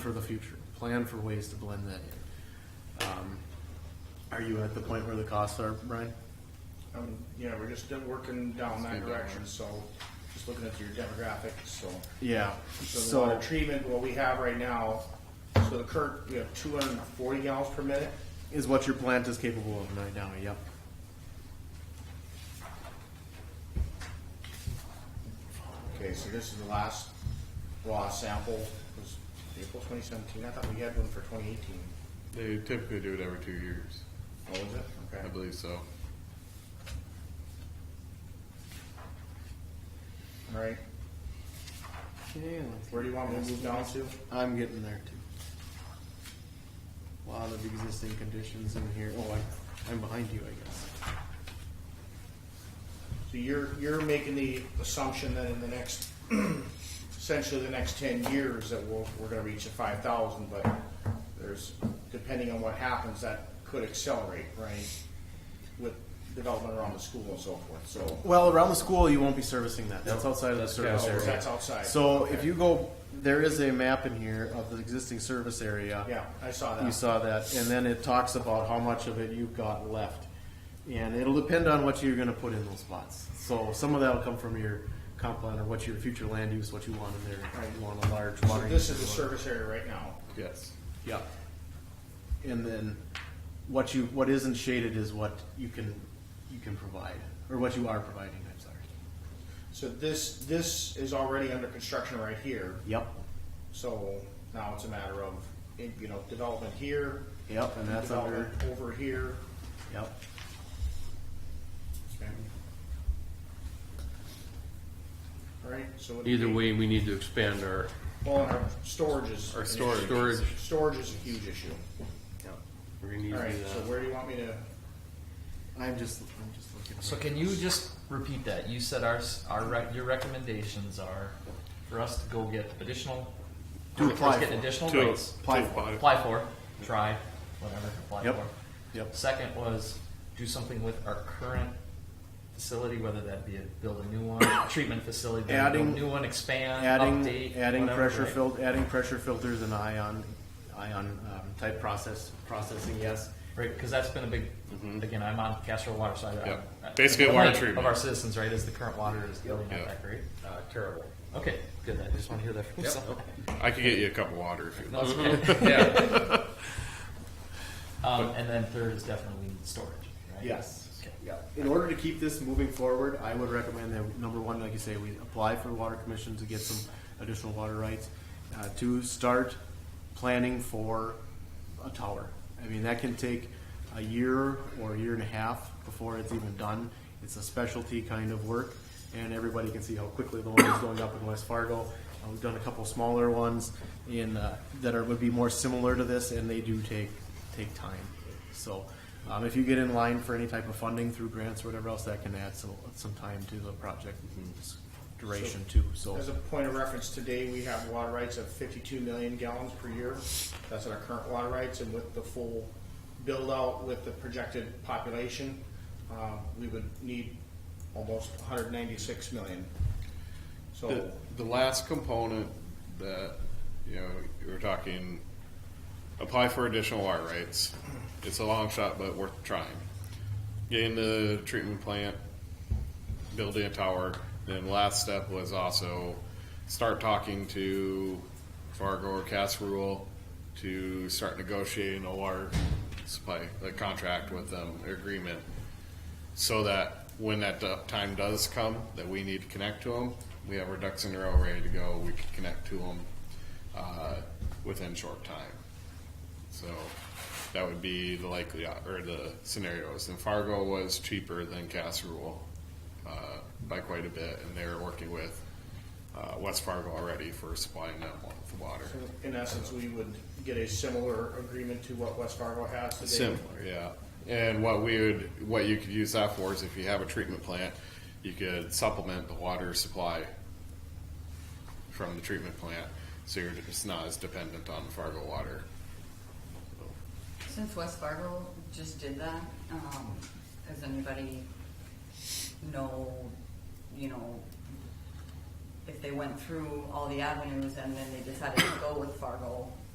for the future, plan for ways to blend that in. Um, Are you at the point where the costs are, Brian? Um, yeah, we're just done working down that Speed down. direction, so just looking at your demographics, so. Yeah, So the water so, treatment, what we have right now, so the current, we have two hundred and forty gallons per minute. is what your plant is capable of right now, yep. Okay, so this is the last raw sample, It was April twenty seventeen, I thought we had one for twenty eighteen. They typically do it every two years, Oh, was it? I Okay. believe so. All right, where do you want me to move down to? I'm getting there too. A Lot of existing conditions in here, oh, I'm, I'm behind you, I guess. So you're, you're making the assumption that in the next, essentially the next ten years that we'll, we're gonna reach a five thousand, but there's, depending on what happens, that could accelerate, right? With development around the school and so forth, so. Well, around the school, you won't be servicing that, that's outside of the service Oh, area. That's outside. So if you go, there is a map in here of the existing service area. Yeah, I saw You that. saw that, and then it talks about how much of it you've got left. And it'll depend on what you're gonna put in those spots. So some of that'll come from your comp plan or what your future land use, what you want in there. Right. You want a large So water. this use is the or whatever. service area right now. Yes. Yep. And then what you, what isn't shaded is what you can, you can provide, or what you are providing, I'm sorry. So this, this is already under construction right here, Yep, so now it's a matter of, you know, development here, yep, and that's under, development over here. yep. Right, so. it'd Either be- way, we need to expand our, Well, and our storage is. Our storage. Storage- Storage is a huge issue. we're gonna need All right, so to uh, do where do you want me to, I'm just, I'm just looking. So can you just repeat that? You said our, s- our, rec- your recommendations are for us to go get additional. To for apply us to Get for. additional To rates, Apply for it. apply for, try, whatever, apply Yep. for. Yep. Second was do something with our current facility, whether that be a, build a new one, treatment facility, build a Adding- new one, expand, Adding, update, adding whatever, pressure right? fil, adding pressure filters and ion, ion, um, type process, processing, yes. Right, because that's been a big, again, I'm on Castro Water, so I. I- Mm-hmm. Yep. I- Basically the water complaint treatment. Of our citizens, right, is the current water is really not Yep. that great? Uh, terrible. Okay, good, I just want to hear that from someone. I could get you a cup of water if you No, want. it's okay. Yeah. Um, and then third is definitely we need storage, right? Yes. Okay. Yeah. In order to keep this moving forward, I would recommend that, number one, like you say, we apply for the water commission to get some additional water rights. Uh, to start planning for a tower. I mean, that can take a year or a year and a half before it's even done. It's a specialty kind of work and everybody can see how quickly the one is going up in West Fargo. Uh, We've done a couple smaller ones in, uh, that are, would be more similar to this and they do take, take time. So, um, if you get in line for any type of funding through grants or whatever else, that can add some, some time to the project duration too, so. as a point of reference, today we have water rights of fifty-two million gallons per year. That's our current water rights, and with the full build-out with the projected population, uh, we would need almost hundred ninety-six million. The, So, the last component that, you know, we were talking, apply for additional water rights. It's a long shot, but worth trying. Getting the treatment plant, building a tower, then last step was also start talking to Fargo or Casserole to start negotiating a water supply, a contract with them, agreement. so that when that do- time does come that we need to connect to them, we have our ducks in a row ready to go. We can connect to them uh, within short time. So that would be the likely o- or the scenarios. And Fargo was cheaper than Casserole uh, by quite a bit, and they're working with uh, West Fargo already for supplying them with water. in essence, we would get a similar agreement to what West Fargo has today. Similar, yeah. And what we would, what you could use that for is if you have a treatment plant, you could supplement the water supply from the treatment plant, so you're just not as dependent on Fargo water. Since West Fargo just did that, um, does anybody know, you know, if they went through all the avenues and then they decided to go with Fargo,